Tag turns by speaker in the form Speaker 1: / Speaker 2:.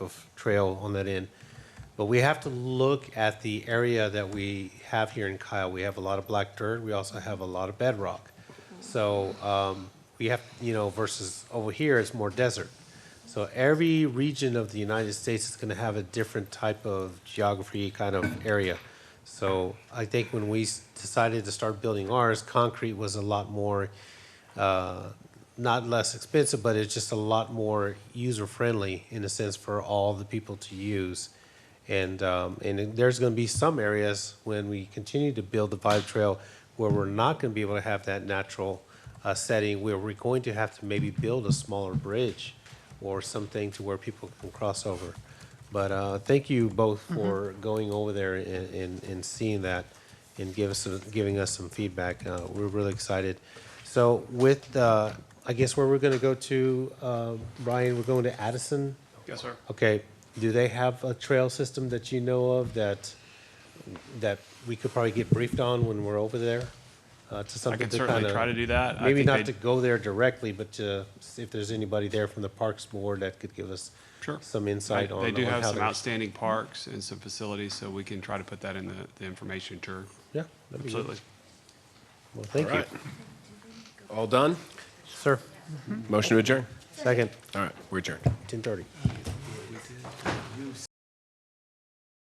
Speaker 1: of trail on that end. But we have to look at the area that we have here in Kyle. We have a lot of black dirt. We also have a lot of bedrock. So um, we have, you know, versus over here, it's more desert. So every region of the United States is going to have a different type of geography kind of area. So I think when we s- decided to start building ours, concrete was a lot more, uh, not less expensive, but it's just a lot more user friendly in a sense for all the people to use. And, um, and then there's gonna be some areas when we continue to build the Vibe Trail where we're not gonna be able to have that natural, uh, setting, where we're going to have to maybe build a smaller bridge or something to where people can cross over. But, uh, thank you both for going over there and, and, and seeing that and give us, giving us some feedback. Uh, we're really excited. So with, uh, I guess where we're gonna go to, uh, Brian, we're going to Addison?
Speaker 2: Yes, sir.
Speaker 1: Okay, do they have a trail system that you know of that, that we could probably get briefed on when we're over there? Uh, to
Speaker 2: I
Speaker 1: something
Speaker 2: can
Speaker 1: to
Speaker 2: certainly
Speaker 1: kinda-
Speaker 2: try to do that. I
Speaker 1: Maybe
Speaker 2: think
Speaker 1: not
Speaker 2: they-
Speaker 1: to go there directly, but to, see if there's anybody there from the Parks Board that could give us
Speaker 2: Sure.
Speaker 1: some
Speaker 2: I-
Speaker 1: insight on.
Speaker 2: They do
Speaker 1: on
Speaker 2: have
Speaker 1: how
Speaker 2: some
Speaker 1: they're-
Speaker 2: outstanding parks and some facilities, so we can try to put that in the, the information tour.
Speaker 1: Yeah, that'd be good.
Speaker 2: Absolutely.
Speaker 1: Well, thank
Speaker 3: All
Speaker 1: you.
Speaker 3: right. All done?
Speaker 1: Sir,
Speaker 3: Motion to adjourn.
Speaker 1: second,
Speaker 3: All right, we're adjourned.
Speaker 1: ten thirty.